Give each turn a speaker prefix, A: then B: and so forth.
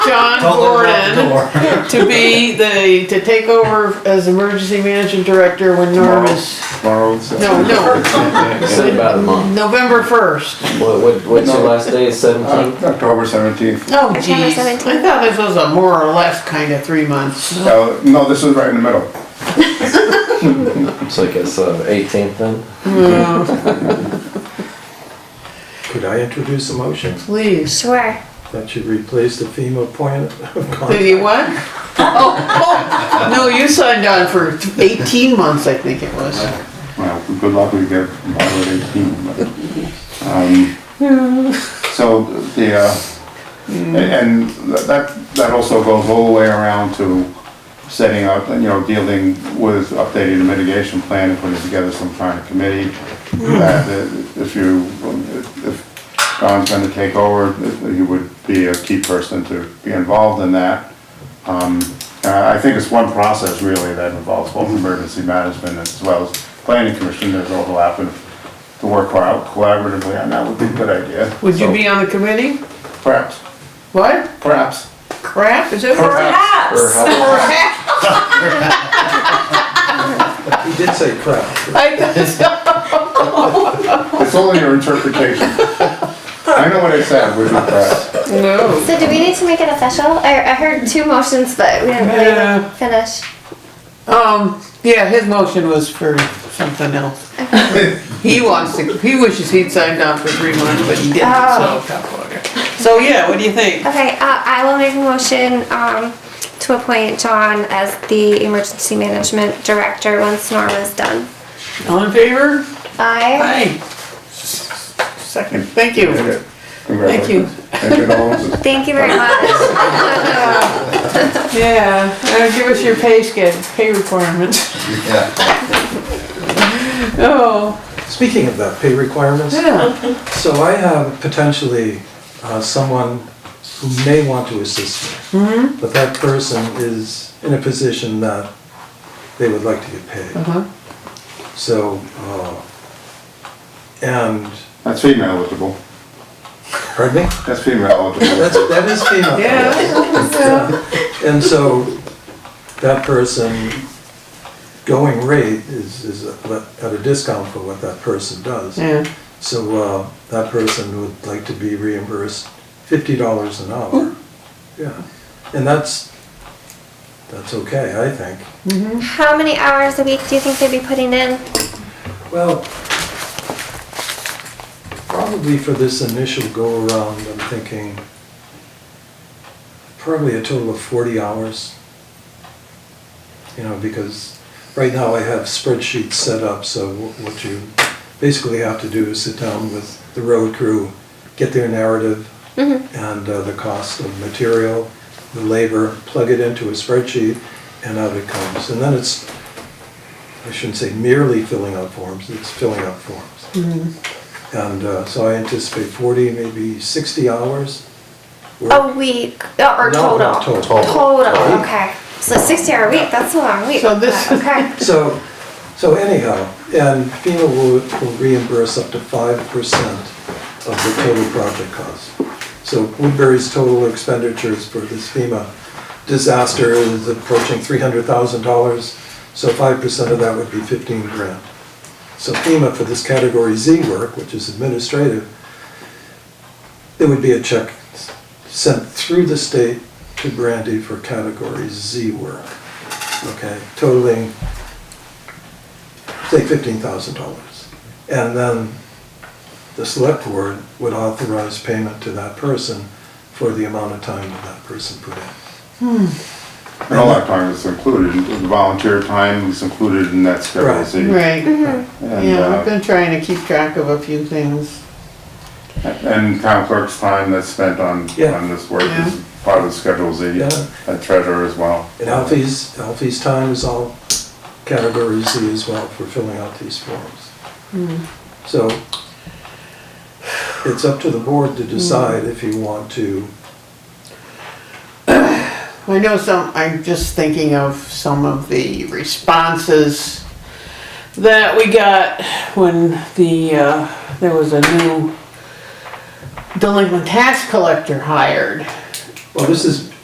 A: John
B: Don't let her
A: Gordon
B: out the door.
A: to be the, to take over as emergency management director when Norm is,
C: Tomorrow's.
A: no, no,
D: Say about a month.
A: November first.
D: What, what, what's your last day? It's
C: Uh,
D: seventeenth?
C: October seventeenth.
A: Oh
E: September
A: geez, I
E: 17th.
A: thought this was a more or less kind of three months.
C: Uh, no, this is right in the middle.
D: It's like it's uh, eighteenth then?
F: Could I introduce a motion
A: Please.
E: Sure.
F: that should replace the FEMA appointment of
A: Did
F: contract?
A: you what? Oh, oh, no, you signed on for eighteen months, I think it was.
C: Well, good luck with your Margaret eighteen. but, um, So the, uh, and that, that also goes all the way around to setting up, you know, dealing with updating the mitigation plan and putting together some kind of committee.
A: Hmm.
C: That if you, if Don's gonna take over, he would be a key person to be involved in that. Um, uh, I think it's one process really that involves
A: Hmm.
C: both emergency management as well as planning commission, there's overlap and to work collab- collaboratively on that would be a good idea.
A: Would you
D: Oh.
C: So,
A: be on the committee?
C: Perhaps,
A: What?
C: perhaps.
A: Crap? Is it crap?
G: Perhaps.
D: Or how,
F: He did say crap.
A: I guess so.
C: It's only your interpretation. I know what I said, we're not press.
A: No.
E: So do we need to make it official? I, I heard two motions, but we didn't really
A: Yeah.
E: finish.
A: Um, yeah, his motion was for something else. He wants to, he wishes he'd signed on for three months, but he didn't, so. So, yeah, what do you think?
E: Okay, uh, I will make a motion um, to appoint John as the emergency management director once Norm is done.
A: All in favor?
E: I
A: Aye. Second, thank you. Thank you.
C: Congratulations. Thank you, Dolores.
E: thank you very much.
A: Yeah, uh, give us your pay scale, pay requirements. Oh,
F: Speaking of that, pay requirements.
A: yeah,
F: So I have potentially uh, someone who may want to assist me. But that person is in a position that they would like to get paid.
A: uh-huh,
F: So, uh, and,
C: That's female eligible.
F: pardon me?
C: That's female eligible.
F: That's, that is FEMA.
A: yeah.
F: And so that person going rate is, is at a discount for what that person does.
A: Yeah,
F: So uh, that person would like to be reimbursed fifty dollars an hour. Yeah, and that's, that's okay, I think.
E: How many hours a week do you think they'd be putting in?
F: Well, probably for this initial go around, I'm thinking probably a total of forty hours. You know, because right now I have spreadsheets set up, so wh- what you basically have to do is sit down with the road crew, get their narrative and uh, the cost of material, the labor, plug it into a spreadsheet, and out it comes. And then it's, I shouldn't say merely filling out forms, it's filling out forms. And uh, so I anticipate forty, maybe sixty hours. worth.
E: A week uh, or
F: No,
E: total?
F: total.
E: Total, okay. So 60 hour a week, that's a long week.
A: So this-
E: Uh, Okay.
F: So, so anyhow, and FEMA will will reimburse up to five percent of the total project cost. So Woodbury's total expenditures for this FEMA disaster is approaching three hundred thousand dollars, so five percent of that would be fifteen grand. So FEMA for this category Z work, which is administrative, there would be a check sent through the state to Brandy for category Z work, okay, totaling say fifteen thousand dollars. And then the select board would authorize payment to that person for the amount of time that that person put in.
C: And all that time is included, the volunteer time is included in that schedule.
F: Right.
C: Z.
A: right,
C: And,
A: yeah, I've
C: uh,
A: been trying to keep track of a few things.
C: uh, and town clerk's time that's spent on,
F: Yeah.
C: on this work
A: Yeah.
C: is part of the schedule Z,
F: Yeah.
C: and treasurer as well.
F: And Alfie's, Alfie's time is all category Z as well for filling out these forms. So it's up to the board to decide if you want to,
A: I know some, I'm just thinking of some of the responses that we got when the, uh, there was a new delinquent tax collector hired.
F: well, this is